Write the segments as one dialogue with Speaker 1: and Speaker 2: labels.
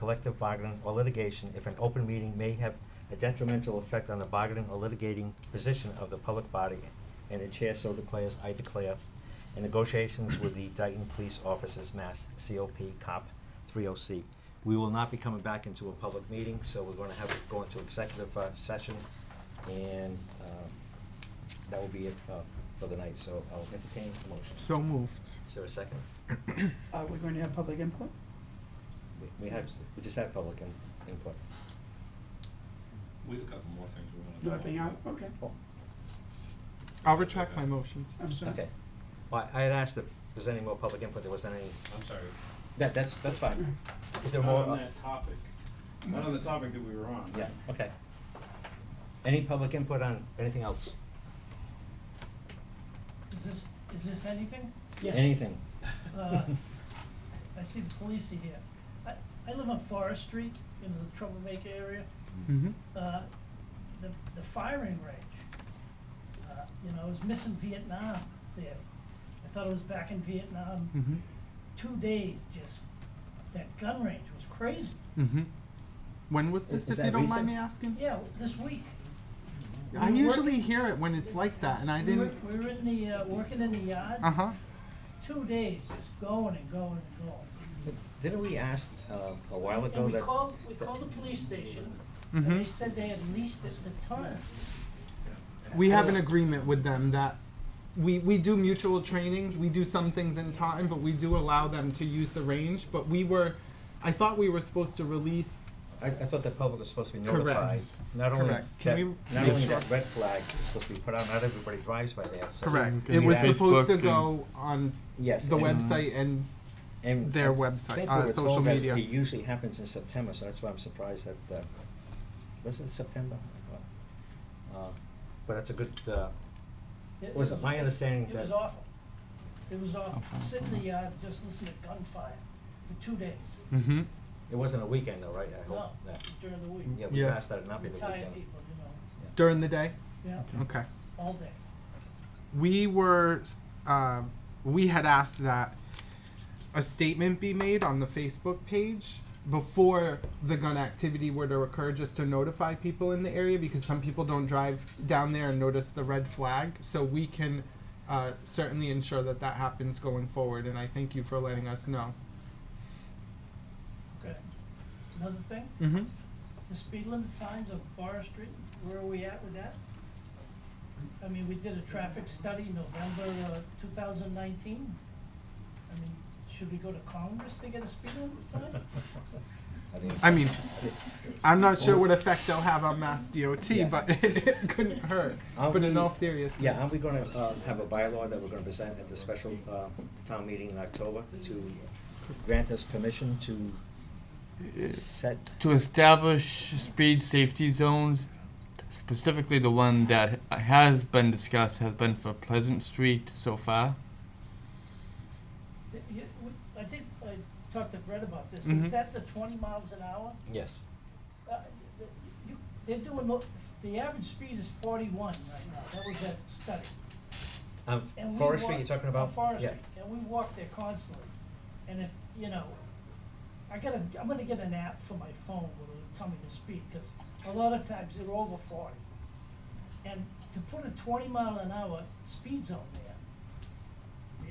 Speaker 1: collective bargaining, or litigation if an open meeting may have a detrimental effect on the bargaining or litigating position of the public body, and the chair so declares, I declare, in negotiations with the Dayton Police Officers Mass, COP, COP 30C. We will not be coming back into a public meeting, so we're going to have, go into executive uh, session, and uh, that will be it uh, for the night, so I'll entertain the motion.
Speaker 2: So moved.
Speaker 1: Is there a second?
Speaker 3: Are we going to Uh, have public input?
Speaker 1: We- We had, we just had public in- input.
Speaker 4: We have a couple more things we want to.
Speaker 3: Nothing out, okay,
Speaker 1: Oh,
Speaker 2: I'll retract my motion.
Speaker 3: I'm sorry.
Speaker 1: Okay. Well, I had asked if there's any more public input, there wasn't any,
Speaker 4: I'm sorry.
Speaker 1: that, that's, that's fine. Is there
Speaker 4: Not
Speaker 1: more?
Speaker 4: on that topic. Not on the topic that we were on.
Speaker 1: Yeah, okay. Any public input on anything else?
Speaker 5: Is this, is this anything?
Speaker 3: Yes,
Speaker 1: Anything?
Speaker 5: Uh, I see the police are here. I, I live on Forest Street in the Troublemaker area.
Speaker 2: Mm-hmm.
Speaker 5: Uh, the, the firing range, uh, you know, I was missing Vietnam there. I thought it was back in Vietnam.
Speaker 2: Mm-hmm.
Speaker 5: Two days, just, that gun range was crazy.
Speaker 2: Mm-hmm. When was
Speaker 1: Is-
Speaker 2: this,
Speaker 1: is
Speaker 2: if you
Speaker 1: that
Speaker 2: don't
Speaker 1: recent?
Speaker 2: mind me asking?
Speaker 5: Yeah, this week.
Speaker 2: I
Speaker 5: We were
Speaker 2: usually
Speaker 5: working-
Speaker 2: hear it when it's like that, and I
Speaker 5: we were-
Speaker 2: didn't.
Speaker 5: We were in the, uh, working in the yard,
Speaker 2: Uh
Speaker 1: Uh-huh.
Speaker 2: huh.
Speaker 5: two days, just going and going and going.
Speaker 1: Didn't we ask uh, a while
Speaker 5: And-
Speaker 1: ago
Speaker 5: And we
Speaker 1: that?
Speaker 5: called, we called the police station, and
Speaker 2: Mhm.
Speaker 1: Mm-hmm.
Speaker 5: they said they had leased it to ton.
Speaker 2: We have an agreement with them that we we do mutual trainings. We do some things in time, but we do allow them to use the range. But we were, I thought we were supposed to release.
Speaker 1: I, I thought the public was supposed to be
Speaker 2: Correct.
Speaker 1: notified. Not only that,
Speaker 2: Correct. Can we
Speaker 1: not
Speaker 2: make
Speaker 1: only
Speaker 2: sure-
Speaker 1: that red flag is supposed to be put out, not everybody drives by there, so.
Speaker 2: It was
Speaker 1: Facebook
Speaker 2: supposed to go on
Speaker 1: Yes.
Speaker 2: the
Speaker 1: and-
Speaker 2: website and
Speaker 1: and
Speaker 2: their
Speaker 1: I
Speaker 2: website,
Speaker 1: think
Speaker 2: uh,
Speaker 1: we were
Speaker 2: social
Speaker 1: told that
Speaker 2: media.
Speaker 1: It usually happens in September, so that's why I'm surprised that, uh, was it September? Uh, But that's a good, uh, was it my understanding
Speaker 5: It
Speaker 1: that?
Speaker 5: was awful. It was awful.
Speaker 2: Awful.
Speaker 5: Sitting in the yard, just listening to gunfire for two days.
Speaker 2: Mm-hmm.
Speaker 1: It wasn't a weekend though, right? I
Speaker 5: No,
Speaker 1: hope. Yeah.
Speaker 5: during the week.
Speaker 1: Yeah, we
Speaker 2: Yeah.
Speaker 1: passed that, it not be the
Speaker 5: Retired
Speaker 1: weekend.
Speaker 5: people, you
Speaker 2: during the day.
Speaker 5: know, yeah,
Speaker 2: Okay.
Speaker 5: all day.
Speaker 2: we were uh, we had asked that a statement be made on the Facebook page before the gun activity were to occur just to notify people in the area because some people don't drive down there and notice the red flag so we can uh, certainly ensure that that happens going forward and i thank you for letting us know
Speaker 5: Okay. Another thing,
Speaker 2: mm-hmm.
Speaker 5: the speed limit signs on Forest Street, where are we at with that? I mean, we did a traffic study November, uh, two thousand nineteen. I mean, should we go to Congress to get a speed limit sign?
Speaker 1: I think it's-
Speaker 2: i mean i'm not sure
Speaker 1: Well-
Speaker 2: what effect they'll have on mass dot
Speaker 1: Yeah.
Speaker 2: but it, couldn't hurt
Speaker 1: Are
Speaker 2: but in
Speaker 1: we-
Speaker 2: all seriousness
Speaker 1: Yeah, aren't we gonna, uh, have a bylaw that we're gonna present at the special, uh, town meeting in October to grant us permission to set?
Speaker 6: to establish speed safety zones, specifically the one that has been discussed has been for Pleasant Street so far.
Speaker 5: Y- y- w- I think I talked to Brett about this.
Speaker 1: Mm-hmm.
Speaker 2: Mhm.
Speaker 5: Is that the twenty miles an hour?
Speaker 1: Yes.
Speaker 5: Uh, th- you- They're doing, mo- the average speed is forty-one right now. That was that study.
Speaker 1: Um,
Speaker 5: And we
Speaker 1: Forest Street
Speaker 5: walk-
Speaker 1: you're talking about?
Speaker 5: on Forest
Speaker 1: Yeah.
Speaker 5: Street, and we walk there constantly. And if, you know, I gotta, I'm gonna get an app for my phone where it'll tell me the speed, because a lot of times they're over forty. And to put a twenty mile an hour speed zone there,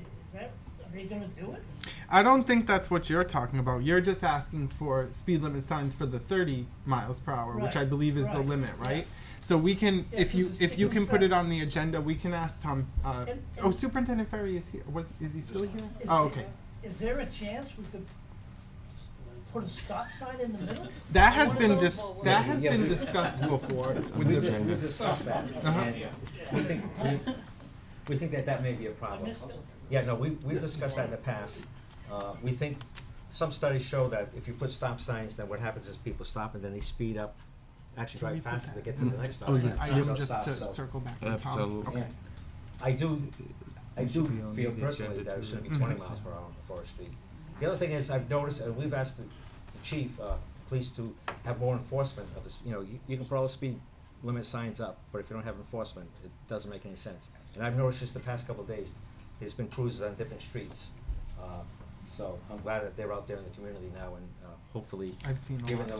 Speaker 5: i- is that, are they gonna do it?
Speaker 2: I don't think that's what you're talking about. You're just asking for speed limit signs for the 30 miles per hour, which I
Speaker 5: Right,
Speaker 2: believe is the
Speaker 5: right,
Speaker 2: limit,
Speaker 5: yeah.
Speaker 2: right? So we can,
Speaker 5: Yeah,
Speaker 2: if you
Speaker 5: because it's
Speaker 2: if you can put it
Speaker 5: state
Speaker 2: on the agenda, we can ask Tom. Uh,
Speaker 5: And-
Speaker 2: oh,
Speaker 5: and-
Speaker 2: Superintendent Ferry is here. Was is he still here?
Speaker 5: Is
Speaker 2: Oh,
Speaker 5: this-
Speaker 2: okay.
Speaker 5: Is there a chance we could put a stop sign in the middle?
Speaker 2: That has been dis-
Speaker 7: Yeah,
Speaker 2: that has
Speaker 1: yeah,
Speaker 2: been
Speaker 1: we-
Speaker 2: discussed before. with
Speaker 1: We've,
Speaker 2: the-
Speaker 1: dis- we've discussed that,
Speaker 2: Uh-huh.
Speaker 1: and we think, we, we think that that may be a
Speaker 5: I
Speaker 1: problem.
Speaker 5: missed it.
Speaker 1: Yeah, no, we, we've discussed that in the past. Uh, we think, some studies show that if you put stop signs, then what happens is people stop and then they speed up, actually
Speaker 2: Can we
Speaker 1: drive
Speaker 2: put
Speaker 1: faster to
Speaker 2: that-
Speaker 1: get to the next stop.
Speaker 6: Oh,
Speaker 1: sign,
Speaker 6: yes.
Speaker 2: I
Speaker 1: so they
Speaker 2: am
Speaker 1: don't
Speaker 2: just
Speaker 1: stop,
Speaker 2: to
Speaker 1: so-
Speaker 2: circle back to Tom.
Speaker 6: Absolutely.
Speaker 2: Okay.
Speaker 1: yeah. I do, I
Speaker 6: It
Speaker 1: do
Speaker 6: should be on
Speaker 1: feel
Speaker 6: the
Speaker 1: personally
Speaker 6: agenda
Speaker 1: that it
Speaker 6: too. Mm-hmm.
Speaker 1: should be
Speaker 2: Mhm.
Speaker 1: twenty miles per hour on Forest Street. The other thing is, I've noticed, and we've asked the the chief, uh, police to have more enforcement of this, you know, you, you can put all the speed limit signs up, but if you don't have enforcement, it doesn't make any sense. And I've noticed just the past couple of days, there's been cruises on different streets, uh, so I'm glad that they're out there in the community now and, uh, hopefully,
Speaker 2: I've seen a lot.
Speaker 1: given the